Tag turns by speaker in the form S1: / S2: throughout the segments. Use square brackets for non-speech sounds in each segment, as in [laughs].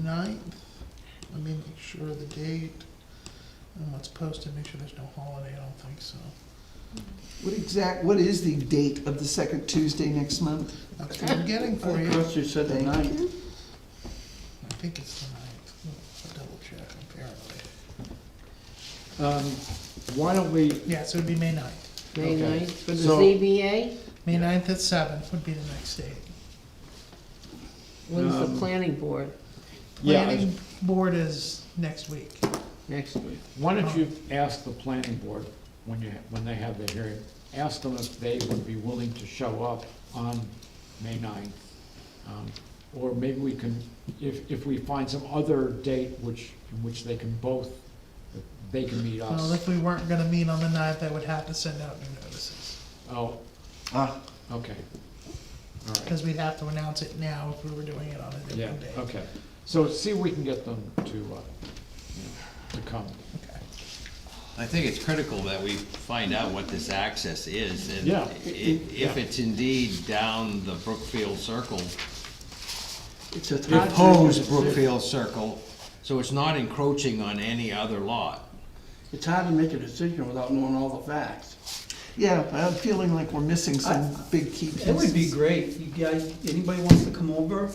S1: ninth, let me make sure of the date, and what's posted, make sure there's no holiday, I don't think so.
S2: What exact, what is the date of the second Tuesday next month?
S1: That's what I'm getting for
S3: I
S1: you,
S3: thought you said the ninth.
S1: I think it's the ninth, I'll double check apparently.
S3: Um, Why don't we,
S1: Yeah, so it'd be May ninth,
S4: May
S3: Okay.
S4: ninth for the
S3: So-
S4: ZBA?
S1: May ninth at seven would be the next date.
S4: When's the
S3: Um,
S4: planning board
S3: yeah, I-
S1: Planning board is next week,
S4: next week?
S3: why don't you ask the planning board, when you, when they have their hearing, ask them if they would be willing to show up on May ninth? Um, Or maybe we can, if, if we find some other date which, in which they can both, they can meet
S1: well,
S3: us.
S1: if we weren't gonna meet on the ninth, I would have to send out new notices,
S3: Oh,
S2: Ah,
S3: okay. All right.
S1: cause we'd have to announce it now if we were doing it on a
S3: Yeah,
S1: different day.
S3: okay. So see if we can get them to, uh, you know, to come.
S1: Okay.
S5: I think it's critical that we find out what this access is, and
S3: Yeah.
S5: i- if it's indeed down the Brookfield Circle,
S2: it's a
S3: Yeah.
S5: proposed Brookfield Circle, so it's not encroaching on any other lot.
S6: It's hard to make a decision without knowing all the facts.
S2: Yeah, I'm feeling like we're missing some big key pieces.
S7: It would be great, you guys, anybody wants to come over,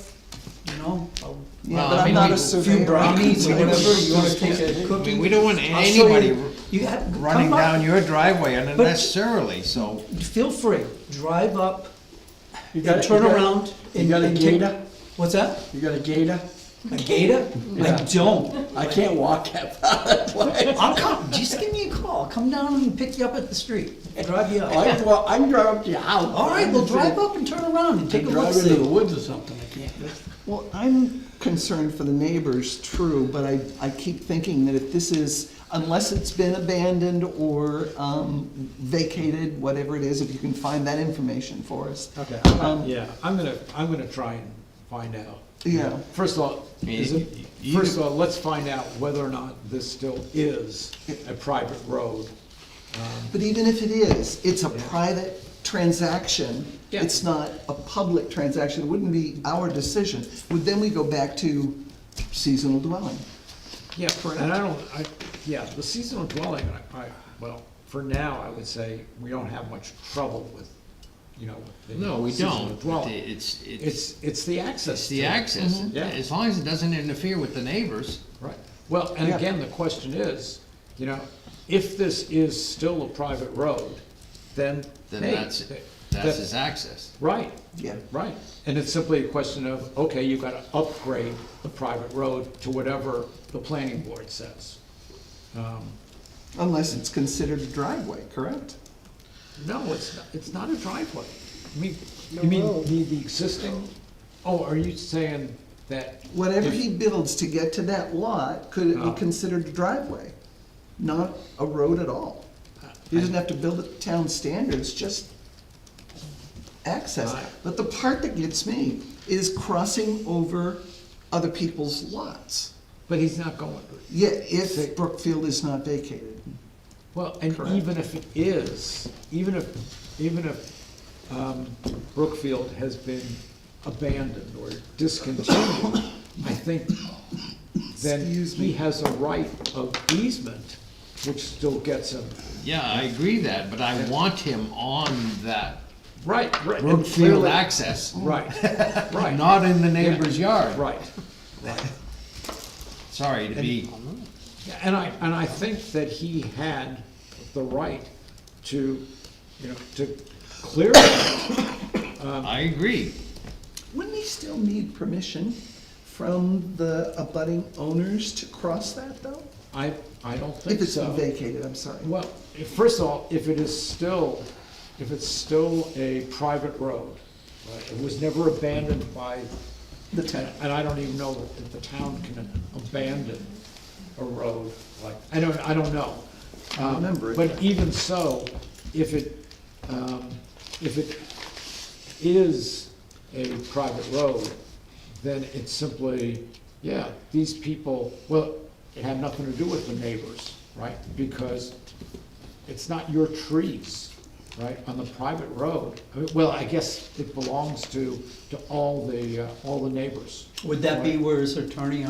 S7: you know? I'll-
S2: Yeah,
S5: Well,
S2: but
S5: I
S2: I'm
S5: mean,
S2: not
S5: we-
S2: a
S5: few
S2: surveyor.
S7: brownies,
S2: so
S7: whatever
S2: whatever
S7: you wanna take a
S5: I
S7: cookie.
S5: mean, we don't want
S7: I'll show you.
S5: anybody
S7: You have, come
S5: running
S7: by.
S5: down your driveway unnecessarily, so.
S7: Feel free, drive up,
S6: You got-
S7: and turn
S6: you got-
S7: around.
S6: You
S7: and-
S6: got a
S7: and take-
S6: gator?
S7: What's that?
S6: You got a gator?
S7: A gator? I don't.
S6: I can't walk that far. [laughs] Like,
S7: I'll come, just give me a call, I'll come down and pick you up at the street, drive you
S6: I
S7: up.
S6: can walk, I can drive up to your house.
S7: All right, well, drive up and turn around and
S6: I
S7: take a
S6: can
S7: look,
S6: drive into the
S7: see.
S6: woods or something, I can't.
S2: Well, I'm concerned for the neighbors, true, but I, I keep thinking that if this is, unless it's been abandoned or um, vacated, whatever it is, if you can find that information for us.
S3: Okay,
S2: Um,
S3: yeah, I'm gonna, I'm gonna try and find out.
S2: Yeah.
S3: First of all, is it, first of all, let's find out whether or not this still is a private road.
S2: But even if it is, it's a private transaction.
S3: Yeah.
S2: It's not a public transaction. It wouldn't be our decision. Would then we go back to seasonal dwelling?
S3: Yeah, and I don't, I, yeah, the seasonal dwelling, I, I, well, for now, I would say, we don't have much trouble with, you know, with the
S5: No, we
S3: seasonal
S5: don't,
S3: dwelling.
S5: it's, it's,
S3: It's, it's the access.
S5: it's the
S3: to it.
S5: access,
S3: Yeah.
S5: as long as it doesn't interfere with the neighbors.
S3: Right, well, and
S2: Yeah.
S3: again, the question is, you know, if this is still a private road, then,
S5: then
S3: hey,
S5: that's,
S3: th-
S5: that's
S3: that-
S5: his access.
S3: Right,
S2: Yeah.
S3: right, and it's simply a question of, okay, you've gotta upgrade the private road to whatever the planning board says.
S2: Unless it's considered a driveway, correct?
S3: No, it's, not- it's not a driveway. I mean, you mean the, the existing, oh, are you saying that?
S2: Whatever
S3: if-
S2: he builds to get to that lot, could it be
S3: Oh.
S2: considered a driveway? Not a road at all. He doesn't have to build it to town standards, just access.
S3: Right.
S2: But the part that gets me is crossing over other people's lots.
S3: But he's not going,
S2: Yeah, if Brookfield is not vacated.
S3: Well, and
S2: Correct.
S3: even if it is, even if, even if um, Brookfield has been abandoned or discontinued, I think then he has a right of easement, which still gets him,
S5: Yeah, I agree that, but I want him on that
S3: right, right. and
S5: Brookfield
S3: clearly-
S5: access,
S3: Right, [laughs] right.
S5: not in the neighbor's yard.
S3: Right.
S5: Sorry to be,
S3: Yeah, And I, and I think that he had the right to, you know, to clear it.
S5: I agree.
S2: Wouldn't he still need permission from the abutting owners to cross that, though?
S3: I, I don't think so.
S2: If it's been vacated, I'm sorry.
S3: Well, if- first of all, if it is still, if it's still a private road, right, it was never abandoned by,
S2: The town.
S3: and I don't even know that the town can abandon a road like, I don't, I don't know.
S2: I remember it.
S3: But even so, if it, um, if it is a private road, then it's simply, yeah, these people, well, it had nothing to do with the neighbors, right? Because it's not your trees, right, on the private road. I mean, Well, I guess it belongs to, to all the, uh, all the neighbors.
S7: Would that be where his attorney